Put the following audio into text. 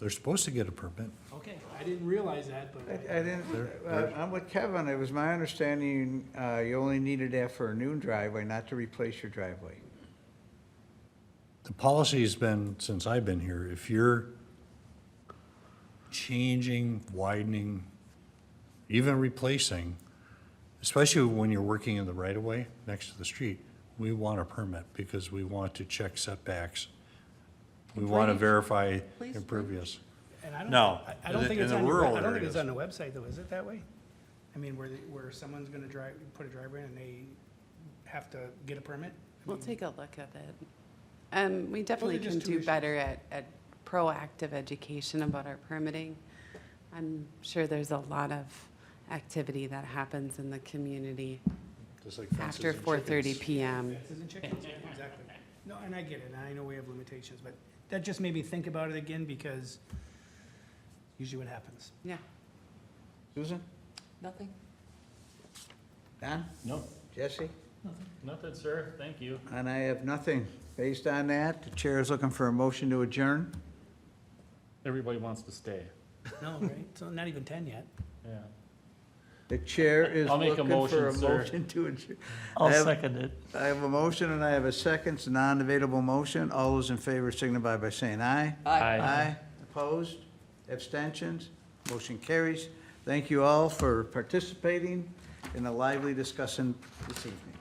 They're supposed to get a permit. Okay, I didn't realize that, but. I I didn't, uh, I'm with Kevin, it was my understanding uh, you only needed that for a new driveway, not to replace your driveway. The policy's been, since I've been here, if you're changing, widening, even replacing, especially when you're working in the right-of-way next to the street, we want a permit because we want to check setbacks. We want to Please. verify Please, impervious. And I don't. No, I- I don't in think the- it's in the on, the rural web- I don't think areas. it's on the website though, is it that way? I mean, where, the- where someone's gonna drive, put a driveway in and they have to get a permit? I We'll mean, take a look at it. Um, we definitely just can two do issues. better at, at proactive education about our permitting. I'm sure there's a lot of activity that happens in the community just like fences after and four thirty chickens. Um, PM. Fences and chickens, yeah, exactly. No, and I get it, and I know we have limitations, but that just made me think about it again because usually what happens. Yeah. Susan? Nothing. Don? No, Jesse? nothing, sir. Thank you. And I have nothing. Based on that, the chair is looking for a motion to adjourn. Everybody wants to stay. No, right? So not even ten yet. Yeah. The chair is I'll make a looking for a motion, sir. motion to adjourn. I'll I have- second it. I have a motion and I have a second, it's a non-debatable motion. All those in favor signify by saying aye. Aye. Aye. Opposed? Abstentions? Motion carries. Thank you all for participating in a lively discussion this evening.